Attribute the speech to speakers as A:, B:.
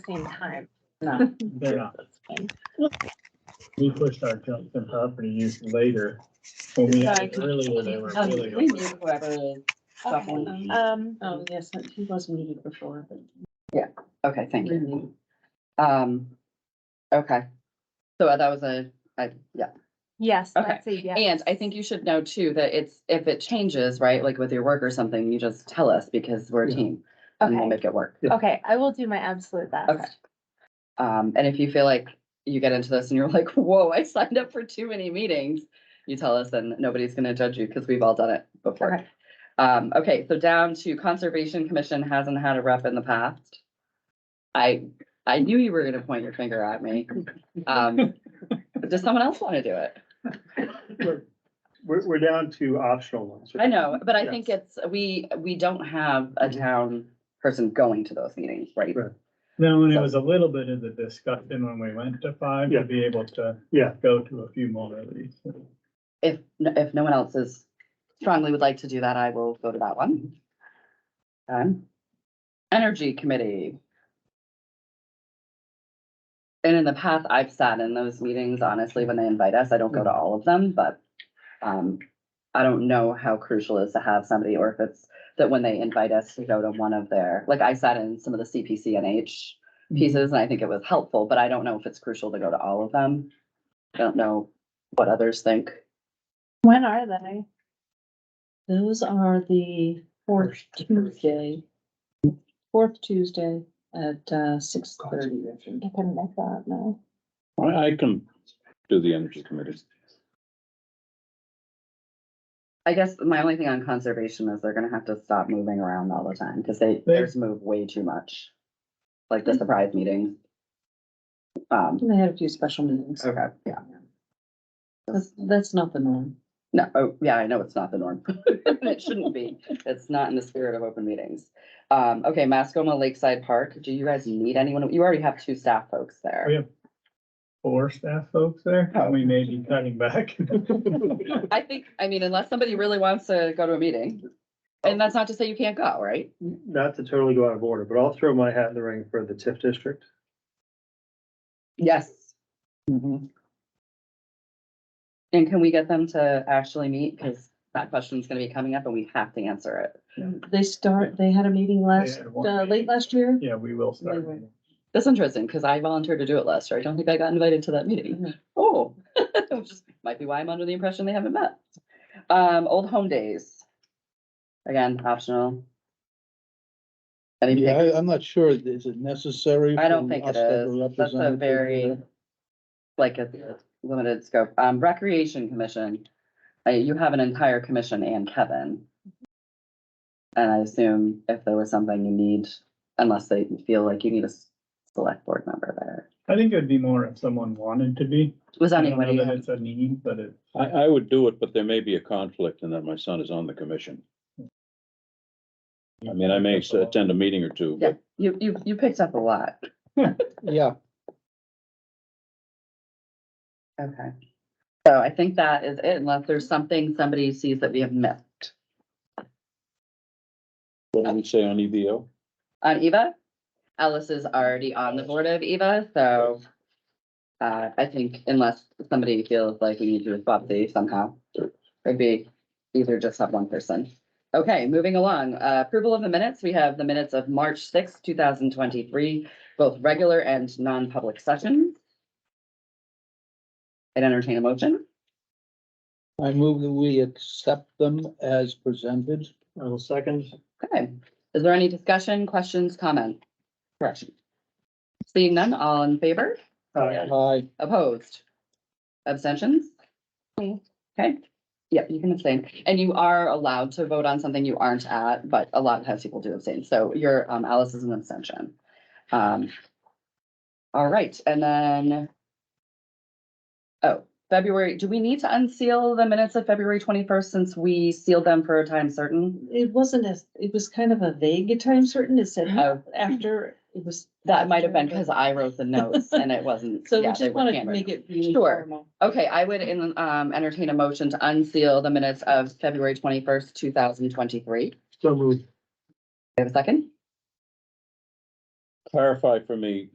A: same time.
B: No,
C: They're not. We pushed our junk and property use later. When we had it earlier, they were
B: um, we
C: really.
B: knew whoever is suffering.
A: Um,
D: Oh, yes, he was muted before, but.
B: Okay, thank you. Um, okay. So uh, that was a, I, yeah.
A: yes,
B: Okay.
A: that's a yes.
B: And I think you should know too, that it's, if it changes, right, like with your work or something, you just tell us because we're a
C: Yeah.
B: team and we'll
A: Okay.
B: make it work.
A: Okay, I will do my absolute best.
B: Okay. Um, and if you feel like you get into this and you're like, whoa, I signed up for too many meetings, you tell us and nobody's gonna judge you because we've all done it before.
A: Okay.
B: Um, okay, so down to Conservation Commission hasn't had a rep in the past. I, I knew you were gonna point your finger at me. Um, does someone else wanna do it?
E: We're, we're we're down to optional ones.
B: I know, but I think
E: Yes.
B: it's, we, we don't have a town person going to those meetings, right?
E: Right.
C: Now, and it was a little bit of the discussion when we went to five,
E: Yeah.
C: to be able to
E: Yeah.
C: go to a few more of these.
B: If, if no one else is strongly would like to do that, I will go to that one. Um, Energy Committee. And in the past, I've sat in those meetings, honestly, when they invite us, I don't go to all of them, but, um, I don't know how crucial it is to have somebody, or if it's that when they invite us to go to one of their, like I sat in some of the CPCNH pieces, and I think it was helpful, but I don't know if it's crucial to go to all of them. I don't know what others think.
A: When are they?
D: Those are the fourth Tuesday, fourth Tuesday at uh six thirty.
A: I couldn't make that, no.
F: I, I can do the energy committee.
B: I guess my only thing on conservation is they're gonna have to stop moving around all the time, cause they,
C: They-
B: theirs move way too much. Like the surprise meetings. Um,
D: They had a few special meetings.
C: Oh.
B: okay, yeah,
D: That's, that's not the norm.
B: no, oh, yeah, I know it's not the norm. It shouldn't be, it's not in the spirit of open meetings. Um, okay, Mascoma Lakeside Park, do you guys need anyone? You already have two staff folks there.
C: We have- Four staff folks there,
B: Oh.
C: we may be cutting back.
B: I think, I mean, unless somebody really wants to go to a meeting, and that's not to say you can't go, right?
E: Not to totally go out of order, but I'll throw my hat in the ring for the TIF district.
B: Yes. Mhm. And can we get them to actually meet? Because that question's gonna be coming up and we have to answer it.
D: They start, they had a meeting last,
C: had one
D: uh,
C: meeting.
D: late last year.
C: Yeah, we will start.
D: Anyway.
B: That's interesting, because I volunteered to do it last year. I don't think I got invited to that meeting.
D: Mhm.
B: Oh, which is- might be why I'm under the impression they haven't met. Um, Old Home Days. Again, optional. Any
G: Yeah,
B: takers?
G: I, I'm not sure, is it necessary?
B: I don't
G: for
B: think
G: us
B: it
G: to have
B: is. That's a
G: representative
B: very,
G: there?
B: like, a limited scope. Um, Recreation Commission, uh, you have an entire commission and Kevin. And I assume if there was something you need, unless they feel like you need a s- select board member there.
C: I think it would be more if someone wanted to be.
B: Was
C: I don't know
B: anybody,
C: that it's a need, but it,
F: I, I would do it, but there may be a conflict in that my son is on the commission. I mean, I may s- attend a meeting or two,
B: yeah,
F: but
B: you, you, you picked up a lot.
G: Yeah,
B: Okay. So I think that is it, unless there's something somebody sees that we have missed.
F: what do we say on E EVO?
B: on Eva. Alice is already on the board of Eva, so uh, I think unless somebody feels like we need to swap these somehow, it'd be either just have one person. Okay, moving along, Uh, approval of the minutes. We have the minutes of March sixth, two thousand twenty-three, both regular and non-public sessions. And entertain a motion.
G: I move that we accept them as presented.
E: I will second.
B: Okay, is there any discussion, questions, comment? Correction. Seeing none, all in favor?
E: Uh,
G: I,
B: Opposed? Abstentions?
A: Me.
B: Okay, yep, you can abstain. And you are allowed to vote on something you aren't at, but a lot of times people do abstain. So your, um, Alice is an abstention. Um, all right, and then oh, February, do we need to unseal the minutes of February twenty-first since we sealed them for a time certain?
D: It wasn't as, it was kind of a vague time certain. It said
B: Oh.
D: after, it was.
B: That might have been because I wrote the notes and it wasn't.
D: So we
B: yeah, they
D: just
B: were
D: wanted to
B: handwritten.
D: make it really
B: Sure.
D: formal.
B: Okay, I would en- um entertain a motion to unseal the minutes of February twenty-first, two thousand twenty-three.
E: So moved.
B: have a second?
F: Clarify for me,